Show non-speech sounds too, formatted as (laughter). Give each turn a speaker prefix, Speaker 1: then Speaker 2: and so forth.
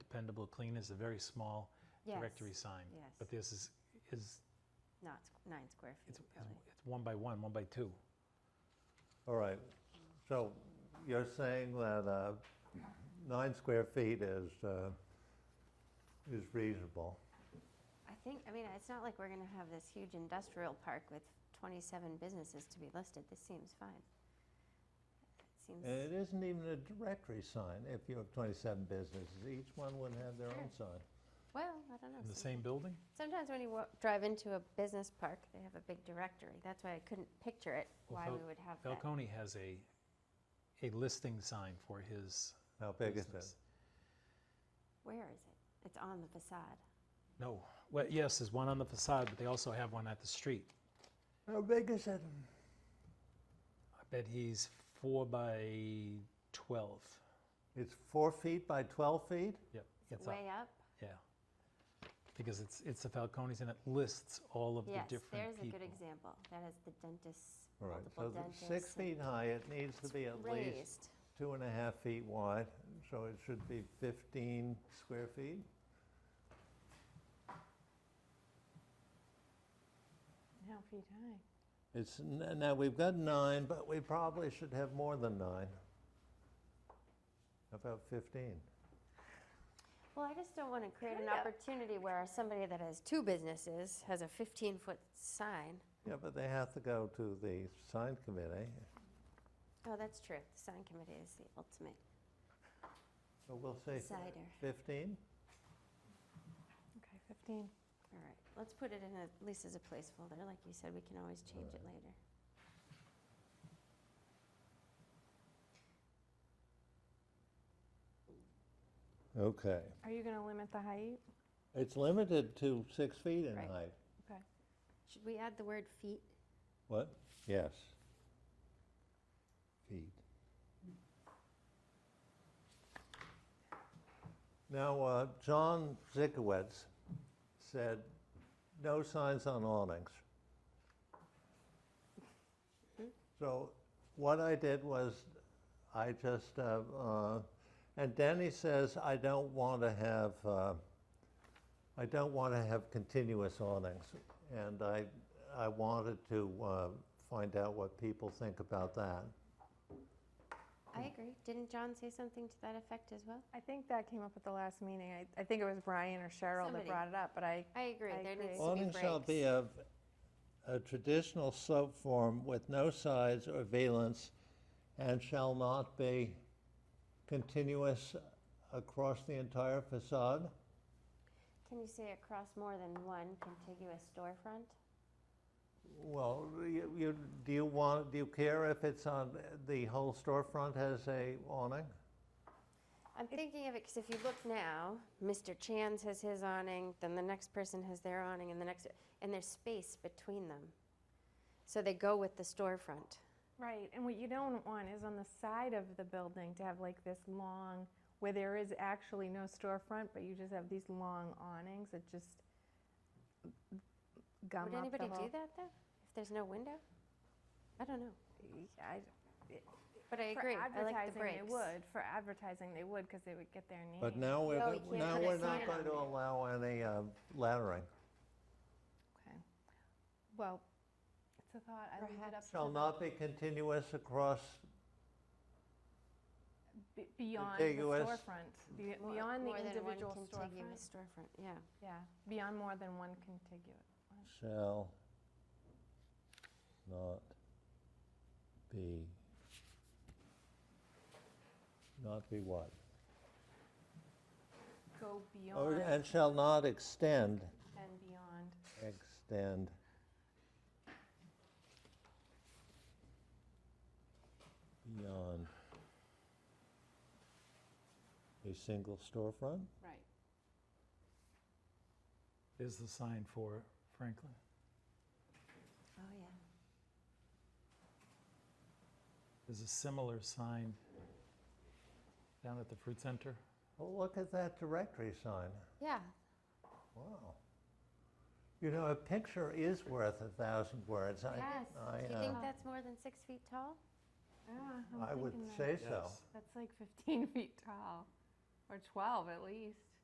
Speaker 1: expendable clean is a very small
Speaker 2: Yes,
Speaker 1: directory sign.
Speaker 2: yes.
Speaker 1: But this is, is,
Speaker 2: Not squ- nine square feet,
Speaker 1: it's, it's-
Speaker 2: really.
Speaker 1: it's one by one, one by two.
Speaker 3: All right, so you're saying that uh, nine square feet is, uh, is reasonable.
Speaker 2: I think, I mean, it's not like we're going to have this huge industrial park with 27 businesses to be listed. This seems fine. It seems,
Speaker 3: And
Speaker 1: Uh,
Speaker 3: it isn't even a directory sign, if you have 27 businesses, each one would have their own sign.
Speaker 2: well, I don't know.
Speaker 1: In the
Speaker 2: some-
Speaker 1: same building?
Speaker 2: Sometimes when you wa- drive into a business park, they have a big directory. That's why I couldn't picture it,
Speaker 1: Well,
Speaker 2: why
Speaker 1: Fal-
Speaker 2: we would have that.
Speaker 1: Falcone has a, a listing sign for his
Speaker 3: How big is
Speaker 1: business.
Speaker 3: it?
Speaker 2: Where is it? It's on the facade.
Speaker 1: No, well, yes, there's one on the facade, but they also have one at the street.
Speaker 3: How big is it?
Speaker 1: I bet he's four by 12.
Speaker 3: It's four feet by 12 feet?
Speaker 1: Yep.
Speaker 2: Is it
Speaker 1: it's up.
Speaker 2: way up?
Speaker 1: Yeah. Because it's, it's the Falcones and it lists all of the
Speaker 2: Yes,
Speaker 1: different
Speaker 2: there's a
Speaker 1: people.
Speaker 2: good example. That is the dentist's,
Speaker 3: All right,
Speaker 2: multiple
Speaker 3: so the
Speaker 2: dentists.
Speaker 3: six
Speaker 2: and
Speaker 3: feet high, it needs to be at least
Speaker 2: raised.
Speaker 3: two and a half feet wide, so it should be 15 square feet?
Speaker 2: How feet high?
Speaker 3: It's, n- now, we've got nine, but we probably should have more than nine. How About 15.
Speaker 2: Well, I just don't want to create an
Speaker 4: Kinda.
Speaker 2: opportunity where somebody that has two businesses has a 15-foot sign.
Speaker 3: Yeah, but they have to go to the sign committee,
Speaker 2: Oh, that's true. The sign committee is the ultimate
Speaker 3: so we'll say
Speaker 2: decider.
Speaker 3: 15?
Speaker 4: Okay, 15.
Speaker 2: All right, let's put it in at least as a placeholder. Like you said, we can always change it later.
Speaker 3: Okay.
Speaker 4: Are you going to limit the height?
Speaker 3: It's limited to six feet in
Speaker 2: Right.
Speaker 3: height.
Speaker 4: Okay.
Speaker 2: Should we add the word feet?
Speaker 3: What? Yes. Feet. Now, uh, John Zikowitz said, "No signs on awnings." So what I did was, I just, uh, uh, and Danny says, "I don't want to have." Uh, I don't want to have continuous awnings, and I, I wanted to uh, find out what people think about that.
Speaker 2: I agree. Didn't John say something to that effect as well?
Speaker 4: I think that came up at the last meeting. I, I think it was Brian or Cheryl
Speaker 2: Somebody.
Speaker 4: that brought it up, but I,
Speaker 2: I agree.
Speaker 4: I
Speaker 2: there
Speaker 4: agree.
Speaker 2: needs to be
Speaker 3: Awning
Speaker 2: breaks.
Speaker 3: shall be of a traditional slope form with no sides or valance and shall not be continuous across the entire facade.
Speaker 2: Can you say across more than one contiguous storefront?
Speaker 3: Well, you, you, do you want, do you care if it's on, the whole storefront has a awning?
Speaker 2: I'm thinking of it because if you look now, Mr. Chan's has his awning, then the next person has their awning, and the next, and there's space between them. So they go with the storefront.
Speaker 4: right. And what you don't want is on the side of the building to have like this long, where there is actually no storefront, but you just have these long awnings that just gum
Speaker 2: Would
Speaker 4: up the
Speaker 2: anybody
Speaker 4: whole-
Speaker 2: do that though? If there's no window? I don't know.
Speaker 4: I,
Speaker 2: But I
Speaker 4: for
Speaker 2: agree. I
Speaker 4: advertising,
Speaker 2: like the breaks.
Speaker 4: they would. For advertising, they would because they would get their name.
Speaker 3: But now we're,
Speaker 2: No, you can't
Speaker 3: now
Speaker 2: put a
Speaker 3: we're
Speaker 2: sign
Speaker 3: not
Speaker 2: on
Speaker 3: going to
Speaker 2: there.
Speaker 3: allow any uh, laddering.
Speaker 4: Okay. Well, it's a thought. I leave it up
Speaker 2: Perhaps
Speaker 3: Shall
Speaker 4: to
Speaker 3: not be continuous across,
Speaker 4: be- beyond the
Speaker 3: Contiguous.
Speaker 4: storefront, be-
Speaker 2: More-
Speaker 4: beyond the
Speaker 2: more than one
Speaker 4: individual
Speaker 2: contiguous
Speaker 4: storefront.
Speaker 2: storefront. Yeah.
Speaker 4: Yeah, beyond more than one contiguous.
Speaker 3: shall not be, not be what?
Speaker 4: Go
Speaker 3: Or,
Speaker 4: beyond
Speaker 3: and shall not extend,
Speaker 4: and beyond.
Speaker 3: extend. Beyond a single storefront?
Speaker 2: Right.
Speaker 1: There's the sign for Franklin.
Speaker 2: Oh yeah.
Speaker 1: There's a similar sign down at the fruit center.
Speaker 3: Well, look at that directory sign.
Speaker 2: Yeah.
Speaker 3: Wow. You know, a picture is worth a thousand words. I-
Speaker 2: yes.
Speaker 3: I,
Speaker 2: Do you
Speaker 3: uh,
Speaker 2: think that's more than six feet tall?
Speaker 4: Yeah, I'm
Speaker 3: I would
Speaker 4: thinking that.
Speaker 3: say so.
Speaker 1: Yes.
Speaker 4: (laughs) That's like 15 feet tall, or 12 at least.